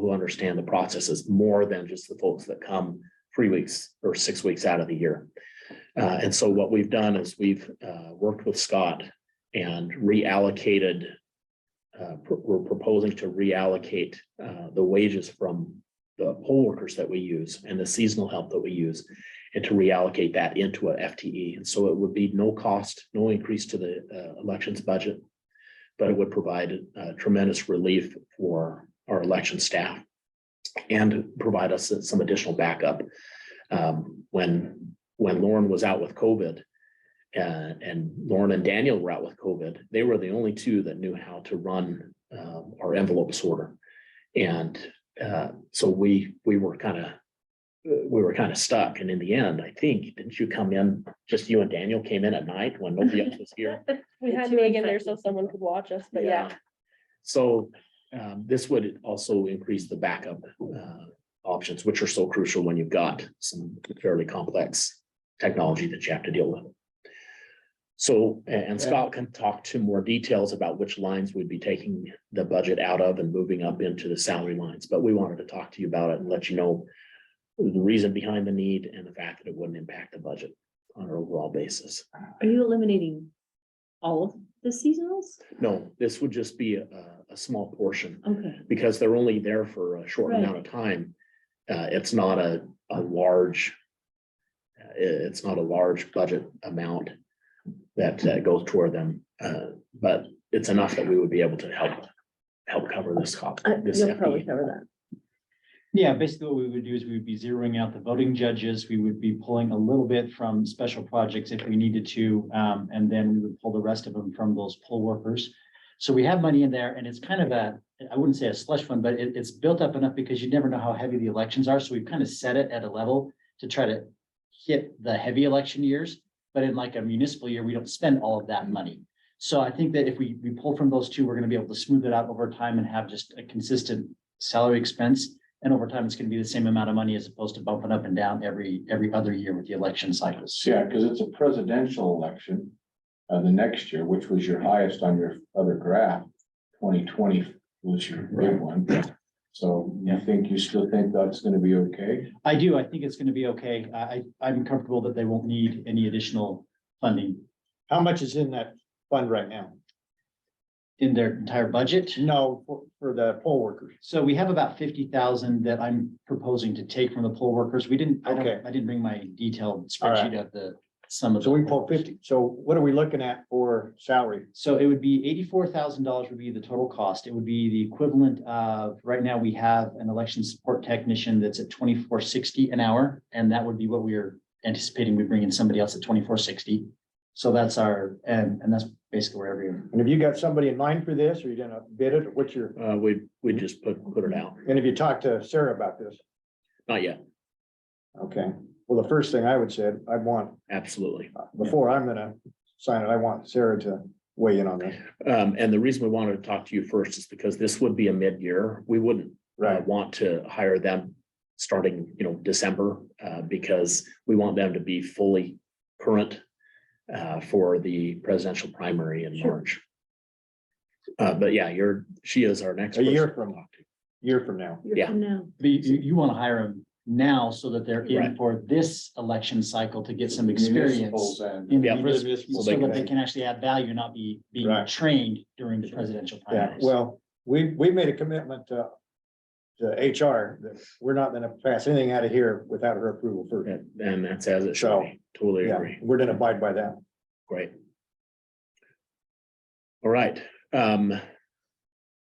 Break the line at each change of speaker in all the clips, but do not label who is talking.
who understand the processes more than just the folks that come three weeks or six weeks out of the year. Uh, and so what we've done is we've, uh, worked with Scott and reallocated. Uh, pr- we're proposing to reallocate, uh, the wages from the poll workers that we use and the seasonal help that we use. And to reallocate that into an FTE. E. And so it would be no cost, no increase to the, uh, elections budget. But it would provide uh, tremendous relief for our election staff. And provide us some additional backup. Um, when, when Lauren was out with COVID. Uh, and Lauren and Daniel were out with COVID, they were the only two that knew how to run, um, our envelope sorter. And uh, so we, we were kind of, we were kind of stuck. And in the end, I think, didn't you come in, just you and Daniel came in at night when nobody else was here?
We
The
had
two
to in there so
infected.
someone could watch us, but yeah.
So um, this would also increase the backup uh, options, which are so crucial when you've got some fairly complex technology that you have to deal with. So, a- and Scott can talk to more details about which lines we'd be taking the budget out of and moving up into the salary lines, but we wanted to talk to you about it and let you know the reason behind the need and the fact that it wouldn't impact the budget on an overall basis.
Are you eliminating all of the seasonals?
No, this would just be a, a small portion
Okay,
because they're only there for a short
Right.
amount of time. Uh, it's not a, a large. uh, i- it's not a large budget amount that uh, goes toward them, uh, but it's enough that we would be able to help, help cover this cost.
Uh,
I-
this
You'll probably
FTE.
cover that.
Yeah, basically what we would do is we would be zeroing out the voting judges. We would be pulling a little bit from special projects if we needed to. Um, and then we would pull the rest of them from those poll workers. So we have money in there and it's kind of a, I wouldn't say a slush fund, but it, it's built up enough because you never know how heavy the elections are. So we've kind of set it at a level to try to hit the heavy election years. But in like a municipal year, we don't spend all of that money. So I think that if we, we pull from those two, we're gonna be able to smooth it out over time and have just a consistent salary expense. And over time, it's gonna be the same amount of money as opposed to bumping up and down every, every other year with the election cycles.
Yeah, because it's a presidential election, uh, the next year, which was your highest on your other graph. Twenty twenty was your big one. So you think, you still think that's gonna be okay?
I do, I think it's gonna be okay. I, I, I'm comfortable that they won't need any additional funding
How much is in that fund right now?
in their entire budget.
No, for- for the poll workers.
So we have about fifty thousand that I'm proposing to take from the poll workers. We didn't, I
Okay.
don't, I didn't bring my detailed
All right.
spreadsheet of the, some of.
So
the
we
poll
pull
workers.
fifty. So what are we looking at for salary?
So it would be eighty-four thousand dollars would be the total cost. It would be the equivalent of, right now, we have an election support technician that's at twenty-four sixty an hour. And that would be what we're anticipating, we bring in somebody else at twenty-four sixty. So that's our, and, and that's basically where every,
And have you got somebody in mind for this or you gonna bid it? What's your,
Uh, we, we just put, put it out,
and have you talked to Sarah about this?
not yet,
Okay, well, the first thing I would say, I want,
absolutely.
before I'm gonna sign it, I want Sarah to weigh in on this.
Um, and the reason we wanted to talk to you first is because this would be a mid-year, we wouldn't uh, want to hire them starting, you know, December, uh, because we want them to be fully current uh, for the presidential primary in
Sure.
March. Uh, but yeah, you're, she is our next.
A year
person to
from-
talk to.
Year from now.
you're
Yeah.
from now.
but you, you want to hire them now so that they're in
Right.
for this election cycle to get some
Municipals
experience.
and-
in the
Yeah.
municipal-
Municipal
So that
vacancy.
they can actually add value, not be being
Right.
trained during the presidential
Yeah,
primaries.
well, we, we made a commitment to, to HR that we're not gonna pass anything out of here without her approval first.
And- And that's as it should
So,
be. Totally
Yeah,
agree.
we're gonna abide by that.
Great. All right, um.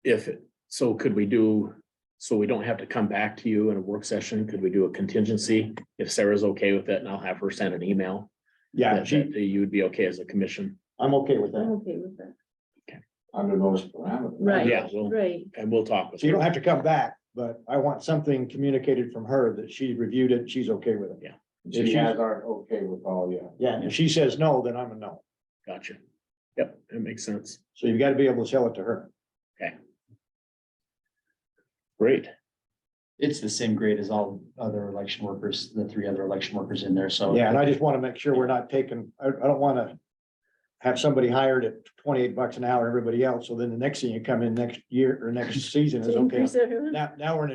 If, so could we do, so we don't have to come back to you in a work session, could we do a contingency? If Sarah's okay with it, and I'll have her send an email.
Yeah,
that
she-
that you would be okay as a commission.
I'm okay with
I'm
that.
okay with that.
Under those parameters.
Right.
Yeah, we'll-
Right.
and we'll talk with
So you don't
her.
have to come back, but I want something communicated from her that she reviewed it, she's okay with it.
She has our okay with all, yeah.
Yeah, if she says no, then I'm a no.
Gotcha. Yep, that makes sense.
So you've got to be able to sell it to her.
Great.
It's the same grade as all other election workers, the three other election workers in there, so.
Yeah, and I just want to make sure we're not taking, I, I don't want to have somebody hired at twenty-eight bucks an hour, everybody else, so then the next thing you come in next year or next season is
To
okay.
increase everyone.
Now, now we're in a